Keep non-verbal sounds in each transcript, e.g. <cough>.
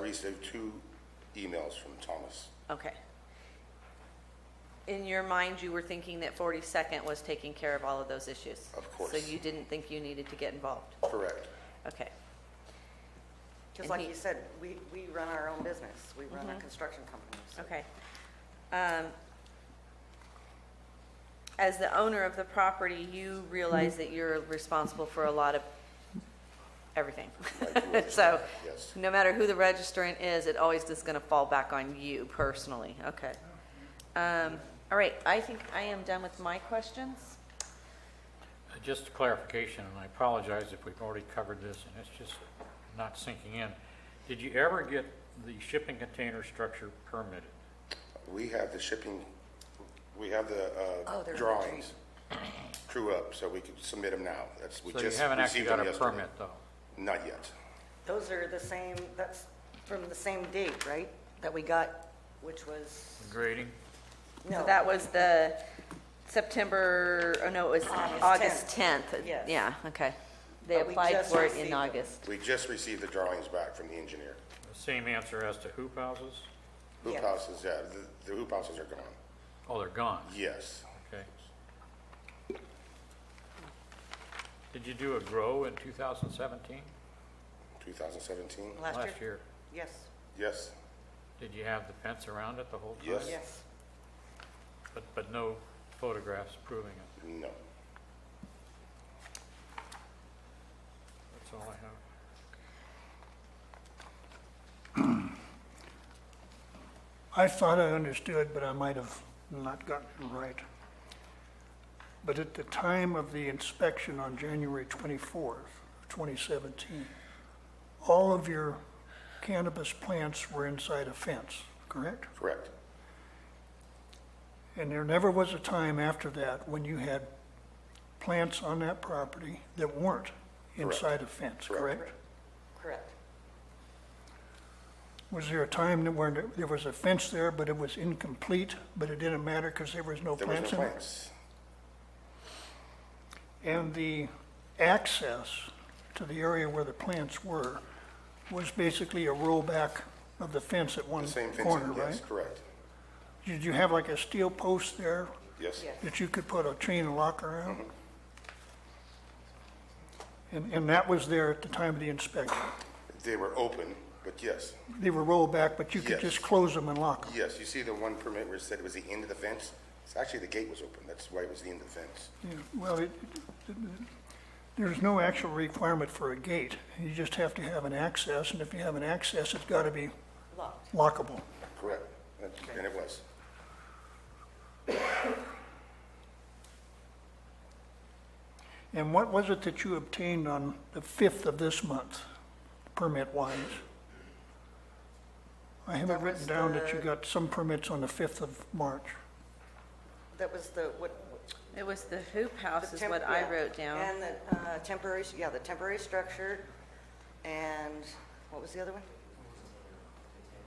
least uh, two emails from Thomas. Okay. In your mind, you were thinking that 42nd was taking care of all of those issues? Of course. So you didn't think you needed to get involved? Correct. Okay. Just And like he- Mm-hmm. you said, we, we run our own business. We run a construction company. so- Okay. Um, As the owner of the property, you realize that you're responsible for a lot of everything. <laughs> So, Yes. no matter who the registrant is, it always is going to fall back on you personally. Okay. Um, All right, I think I am done with my questions. Uh, Just a clarification, and I apologize if we've already covered this, and it's just not sinking in. Did you ever get the shipping container structure permitted? We have the shipping, we have the uh, Oh, they're drawings, crew up, so we could submit them now. That's, we So you just haven't actually received got them a yesterday. permit, though? Not yet. Those are the same, that's from the same date, right? That we got, which was, Grading? no. So that was the September, oh no, it was August August 10th. Yes. Yeah, okay. They But we applied just for it received in them. August. We just received the drawings back from the engineer. The same answer as to hoop houses? Hoop Yes. houses, yeah, the- the hoop houses are gone. Oh, they're gone, Yes. okay. Did you do a grow in 2017? 2017? Last Last year? year. Yes, Yes. Did you have the fence around it the whole time? Yes. yes. But, but no photographs proving it? No. That's all I have. I thought I understood, but I might have not gotten it right. But at the time of the inspection on January 24th, 2017, all of your cannabis plants were inside a fence, correct? Correct. And there never was a time after that when you had plants on that property that weren't inside a fence, Correct. correct? Correct. Was there a time that where there was a fence there, but it was incomplete, but it didn't matter because there was no There was no plants in it? plants. And the access to the area where the plants were was basically a rollback of the fence at one The same corner, fencing, yes, right? correct. Did you have like a steel post there Yes. Yes. that you could put a chain lock around? Mm-hmm. And, and that was there at the time of the inspection? They were open, but yes. They were rolled back, but you could Yes. just close them and lock them? Yes, you see the one permit where it said it was the end of the fence? It's actually the gate was open, that's why it was the end of the fence. Yeah, well, it, it- there's no actual requirement for a gate. You just have to have an access, and if you have an access, it's got to be Locked. lockable. Correct. And- And it was. And what was it that you obtained on the 5th of this month, permit-wise? I have it That written was down that the- you got some permits on the 5th of March. That was the, what? It was the hoop house is temp- what I yeah. wrote down. And the uh, temporary, yeah, the temporary structure, and what was the other one?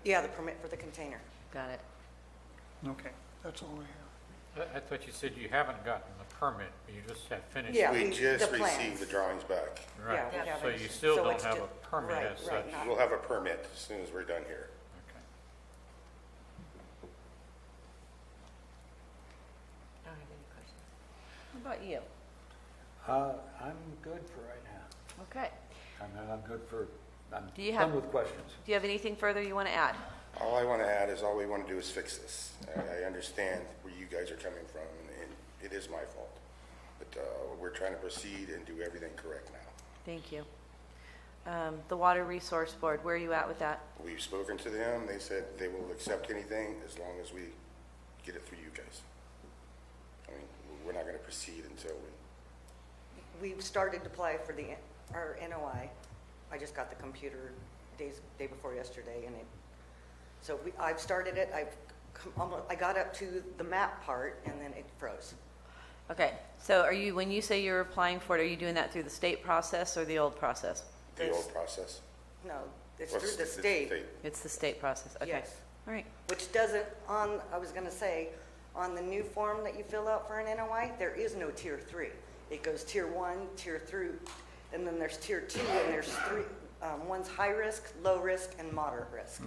Yeah, the permit for the container. Got it. Okay, that's all I I, I thought you said you haven't gotten the permit, you just have finished. Yeah, We we- just the received the plans. drawings back. Right, Yeah, we so haven't. you still So don't it's have ju- a permit right, as right, such. not- We'll have a permit as soon as we're done here. Okay. I don't have any questions. What about you? Uh, I'm good for right now. Okay. I mean, I'm good for, I'm Do you have- done with questions. Do you have anything further you want to add? All I want to add is all we want to do is fix this. I, I understand where you guys are coming from, and it is my fault. But, uh, we're trying to proceed and do everything correct now. Thank you. Um, The Water Resource Board, where are you at with that? We've spoken to them, they said they will accept anything as long as we get it through you guys. I mean, we're not going to proceed until we We've started to apply for the, our NOI. I just got the computer days, day before yesterday, and it, so we, I've started it, I've, come almo- I got up to the map part, and then it froze. Okay, so are you, when you say you're applying for it, are you doing that through the state process or the old process? the That's- old process. No, it's Well, through the it's state, It's the state process, okay. Yes. All right, which doesn't, on, I was gonna say, on the new form that you fill out for an NOI, there is no tier three. It goes tier one, tier three, and then there's tier two, and there's three, um, one's high risk, low risk, and moderate risk.